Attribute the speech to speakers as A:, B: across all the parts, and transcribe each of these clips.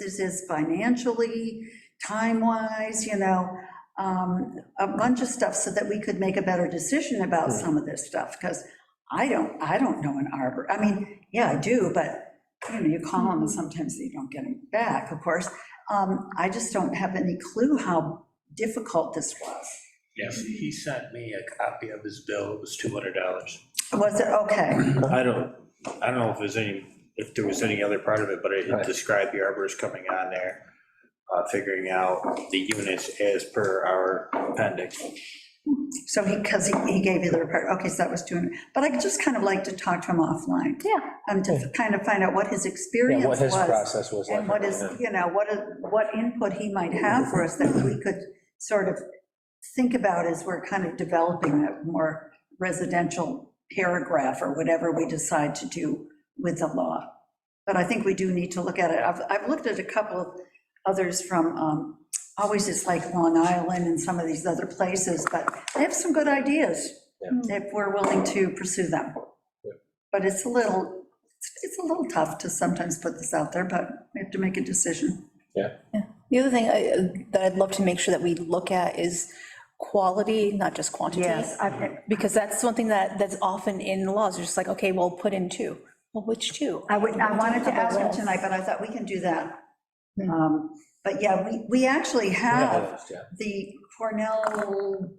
A: citizens financially, time-wise, you know, um, a bunch of stuff so that we could make a better decision about some of this stuff, because I don't, I don't know an arbor. I mean, yeah, I do, but, you know, you call them and sometimes you don't get them back, of course. Um, I just don't have any clue how difficult this was.
B: Yes, he sent me a copy of his bill, it was two hundred dollars.
A: Was it, okay,
B: I don't, I don't know if there's any, if there was any other part of it, but it
C: Right.
B: described the arborist coming on there, uh, figuring out the units as per our appendix.
A: so he, because he he gave you the report, okay, so that was 200, but I'd just kind of like to talk to him offline.
D: Yeah.
A: Um, to kind of find out what his experience
C: Yeah,
A: was.
C: what his process was like.
A: And what is, you know, what, is- what input he might have for us that we could sort of think about as we're kind of developing a more residential paragraph or whatever we decide to do with the law. But I think we do need to look at it. I've, I've looked at a couple of others from, um, always it's like Long Island and some of these other places, but they have some good ideas
D: Yeah.
A: if we're willing to pursue them. But it's a little, it's- it's a little tough to sometimes put this out there, but we have to make a decision.
D: The other thing I- that I'd love to make sure that we look at is quality, not just quantity.
E: I,
D: Because that's something that, that's often in laws, it's just like, okay, well, put in two. Well, which two?
E: I would, I wanted to ask
A: him
E: him tonight,
A: tonight, but I thought we can do that. Um, But yeah, we, we actually have the Cornell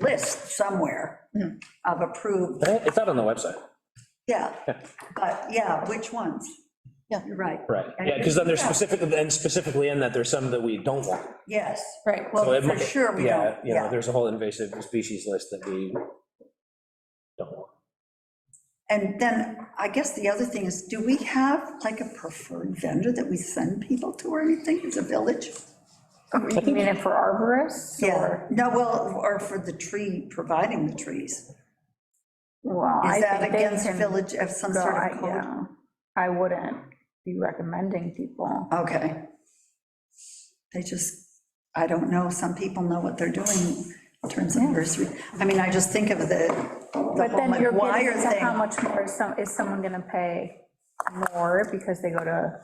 A: list somewhere
D: Mhm.
A: of approved,
C: It's out on the website,
A: yeah, but yeah, which ones?
D: Yeah.
A: You're right,
C: right, yeah, because then there's specific, and specifically in that, there's some that we don't want.
A: yes.
D: Right.
C: So
A: Well,
C: it
A: for
C: might-
A: sure we
C: Yeah,
A: don't,
C: you know,
A: yeah.
C: there's a whole invasive species list that we don't want.
A: And then I guess the other thing is, do we have like a preferred vendor that we send people to or anything as a village?
E: you mean it for arborists?
A: Yeah, no, well, or for the tree, providing the trees.
E: Well, I
A: Is that
E: think they
A: against
E: can
A: village of some
E: go,
A: sort
E: I-
A: of code?
E: yeah. I wouldn't be recommending people.
A: Okay. They just, I don't know, some people know what they're doing in terms of nursery. I mean, I just think of the, the
E: But
A: whole
E: then you're
A: McGuire
E: getting to how
A: thing.
E: much more is some, is someone gonna pay more because they go to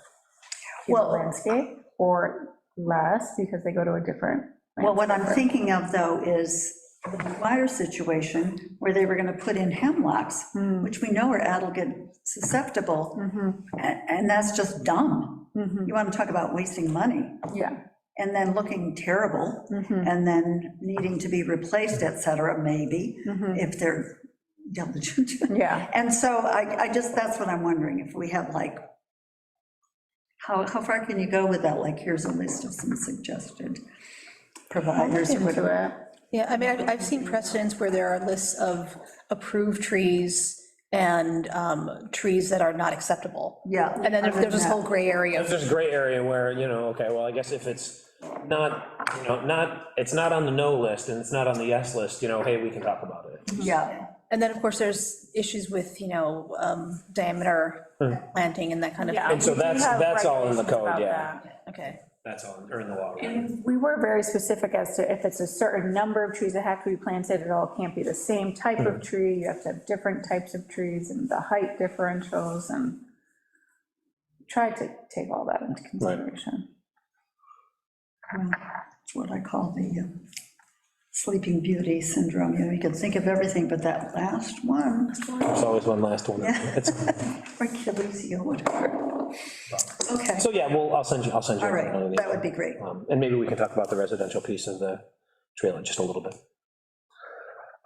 A: Well-
E: Cuban landscape? Or less because they go to a different?
A: Well, what I'm
E: landscaper?
A: thinking of though is the McGuire situation where they were gonna put in hemlocks,
E: Hmm.
A: which we know are adelgid susceptible.
E: Mm-hmm.
A: And, and that's just dumb. You want to talk about wasting money
E: Yeah. Mm-hmm.
A: and then looking terrible
D: Mm-hmm.
A: and then needing to be replaced, et cetera, maybe,
D: Mm-hmm.
A: if they're diligent.
E: Mm-hmm. Yeah.
A: And so I, I just, that's what I'm wondering, if we have like, how, how far can you go with that? Like, here's a list of some suggested providers or
E: Into
A: whatever.
E: it.
D: Yeah, I mean, I've, I've seen precedents where there are lists of approved trees and um, trees that are not acceptable.
A: Yeah.
D: And then
A: I've
D: there's this
A: done
D: whole gray area
C: There's this gray area where, you know, okay, well, I guess if it's not, you know, not, it's not on the no list and it's not on the yes list, you know, hey, we can talk about it.
A: that. Yeah,
D: And then, of course, there's issues with, you know, um, diameter planting and that kind of,
E: Yeah,
C: And so
E: we do
C: that's-
E: have
C: that's all in the
E: regulations
C: code,
E: about
C: yeah.
E: that.
D: okay.
C: That's all, or in the law. right?
E: And we were very specific as to if it's a certain number of trees that have to be planted, it all can't be the same type
C: Hmm.
E: of tree, you have to have different types of trees and the height differentials and tried to take all that into consideration.
A: it's what I call the uh, sleeping beauty syndrome. You know, you can think of everything, but that last one,
C: There's always one last one. It's-
A: or Achilles heel, whatever. Okay,
C: So, yeah, well, I'll send you, I'll send you.
A: all
C: one of
A: right,
C: these.
A: that would be great.
C: Um, And maybe we can talk about the residential piece of the trailer just a little bit.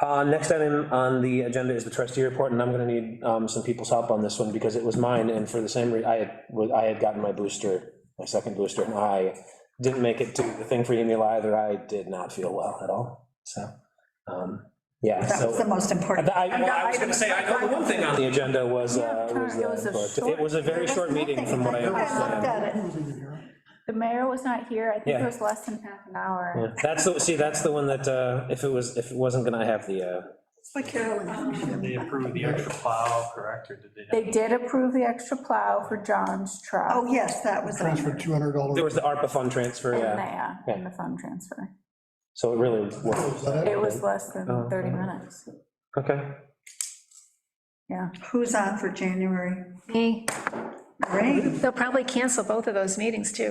C: Uh, Next item on the agenda is the trustee report, and I'm going to need um, some people's help on this one because it was mine, and for the same reason, I had, was- I had gotten my booster, my second booster, and I didn't make it to the thing for Emila either. I did not feel well at all, so, um, yeah.
A: That
C: so-
A: was the most important.
C: I well, I was going to say, I know the one thing on the agenda was, uh, was the, but it was a very short meeting from what I
A: think I looked
C: understand.
A: at it.
E: The mayor was not here, I think
C: Yeah.
E: it was less than half an hour.
C: Yeah, That's the, see, that's the one that, uh, if it was, if it wasn't gonna have the, uh,
A: But Carolyn,
B: Um,
F: They approved the extra plow, correct, or did they? not?
E: They did approve the extra plow for John's truck.
A: oh, yes, that was. on
G: transfer
A: there.
C: there
G: $200.
C: was the ARPA fund transfer,
E: in
C: yeah,
E: there, in the fund transfer.
C: so it really worked.
G: Was that
E: It was less than
C: Oh,
E: 30
C: okay.
E: minutes,
C: Okay.
E: yeah.
A: Who's on for January?
H: Me,
I: Great.
D: They'll probably cancel both of those meetings, too.